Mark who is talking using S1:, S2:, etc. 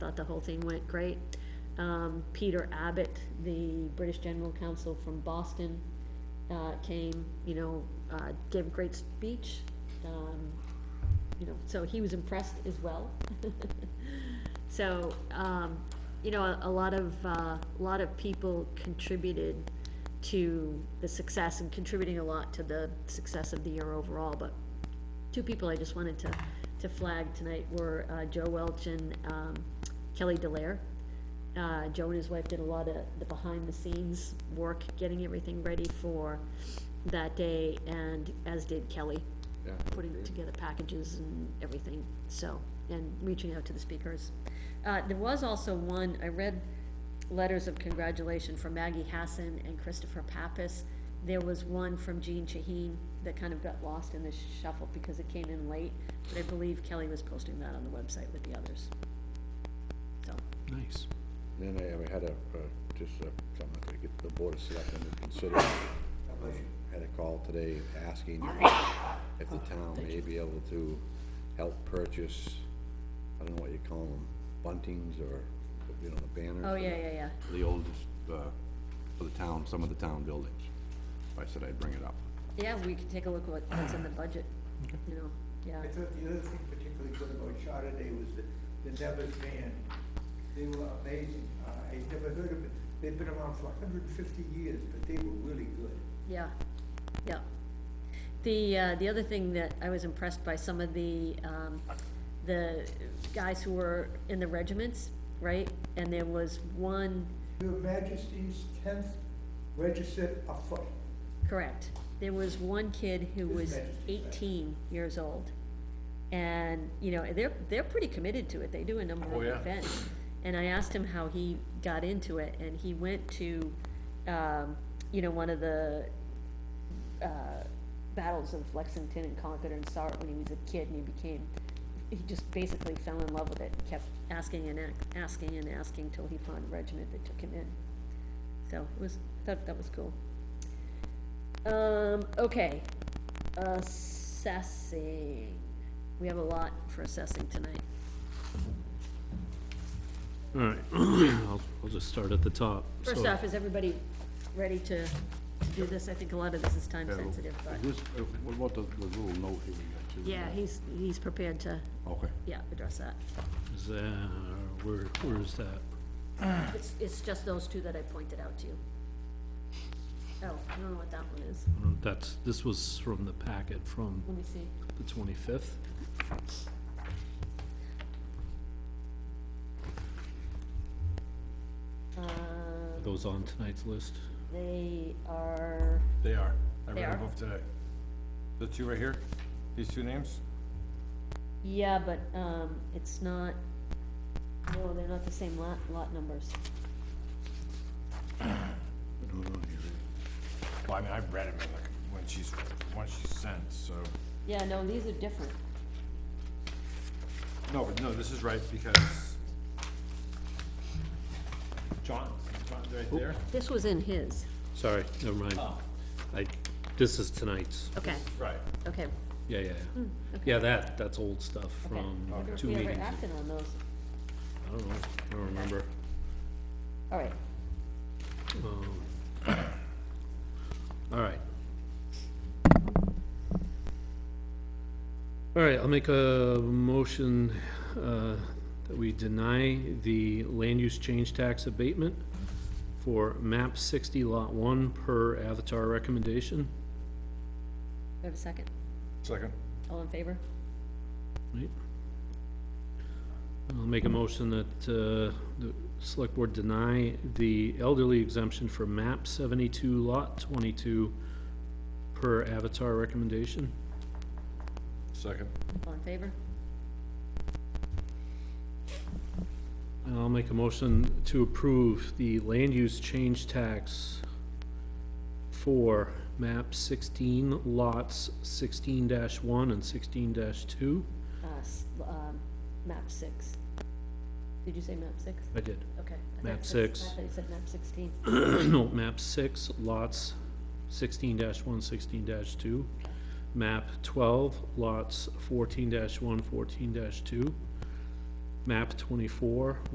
S1: thought the whole thing went great. Um, Peter Abbott, the British General Counsel from Boston, uh, came, you know, uh, gave a great speech. Um, you know, so he was impressed as well. So, um, you know, a, a lot of, uh, a lot of people contributed to the success and contributing a lot to the success of the year overall, but two people I just wanted to, to flag tonight were, uh, Joe Welch and, um, Kelly Delaire. Uh, Joe and his wife did a lot of the behind-the-scenes work, getting everything ready for that day, and as did Kelly
S2: Yeah,
S1: putting together packages and everything, so, and reaching out to the speakers. Uh, there was also one, I read letters of congratulation from Maggie Hassan and Christopher Pappas. There was one from Jean Shaheen that kind of got lost in the shuffle because it came in late, but I believe Kelly was posting that on the website with the others. So,
S3: Nice.
S2: Then I, I had a, uh, just uh something to get the board of selectmen to consider. Had a call today asking if the town may be able to help purchase, I don't know what you call them, buntings or, you know, the banners.
S1: oh,
S2: for
S1: yeah,
S2: the-
S1: yeah, yeah,
S2: for The oldest, uh, for the town, some of the town buildings. I said I'd bring it up.
S1: yeah, we can take a look at what's in the budget, you know, yeah.
S4: I thought the other thing particularly good about Charter Day was the, the Nevers band. They were amazing. Uh, I never heard of it. They've been around for hundred and fifty years, but they were really good.
S1: Yeah, yeah. The, uh, the other thing that I was impressed by, some of the, um, the guys who were in the regiments, right? And there was one,
S4: Your Majesty's tenth registered afoot.
S1: correct, there was one kid who
S4: His
S1: was
S4: Majesty's Act.
S1: eighteen years old. And, you know, they're, they're pretty committed to it, they do a number
S3: Oh,
S1: of
S3: yeah.
S1: events. And I asked him how he got into it, and he went to, um, you know, one of the, uh, battles of Lexington and Concord and saw it when he was a kid and he became, he just basically fell in love with it, kept asking and ac- asking and asking till he found a regiment that took him in. So it was, that, that was cool. Um, okay, assessing. We have a lot for assessing tonight.
S3: All right, I'll, I'll just start at the top.
S1: First
S3: So,
S1: off, is everybody ready to, to do this? I think a lot of this is time sensitive, but,
S2: Is this- uh, what about the, the little note here we got?
S1: yeah, he's, he's prepared to,
S2: Okay.
S1: yeah, address that.
S3: Is that, where, where is that?
S1: It's, it's just those two that I pointed out to you. Oh, I don't know what that one is.
S3: Oh, That's, this was from the packet from
S1: Let me see.
S3: the twenty-fifth.
S1: Uh,
S3: Those on tonight's list?
S1: they are,
S5: They are. I
S1: They
S5: read
S1: are?
S5: them both today. The two right here, these two names?
S1: yeah, but, um, it's not, no, they're not the same lot, lot numbers.
S5: Well, I mean, I've read them in like, when she's, when she sent, so.
S1: Yeah, no, these are different.
S5: No, but no, this is right because John, John's right there.
S1: This was in his.
S3: Sorry, never mind.
S1: Oh.
S3: I, this is tonight's.
S1: Okay,
S5: Right.
S1: okay.
S3: Yeah, yeah,
S1: Hmm,
S3: yeah. Yeah, that, that's old stuff from
S1: I wonder if
S3: two
S1: we ever
S3: meetings. ago.
S1: acted on those.
S3: I don't know, I don't remember.
S1: All right,
S3: Um, All right. All right, I'll make a motion uh, that we deny the land use change tax abatement for map sixty lot one per Avatar recommendation.
S1: we have a second.
S5: Second.
S1: All in favor?
S3: Right. I'll make a motion that uh, the select board deny the elderly exemption for map seventy-two lot twenty-two per Avatar recommendation.
S5: Second.
S1: All in favor?
S3: And I'll make a motion to approve the land use change tax for map sixteen lots sixteen one and sixteen two.
S1: Uh, s- um, map six. Did you say map six?
S3: I did,
S1: Okay. I thought
S3: Map
S1: it said-
S3: six.
S1: I thought you said map sixteen.
S3: no, map six lots sixteen one, sixteen two. Map twelve lots fourteen 1 14 two. Map twenty-four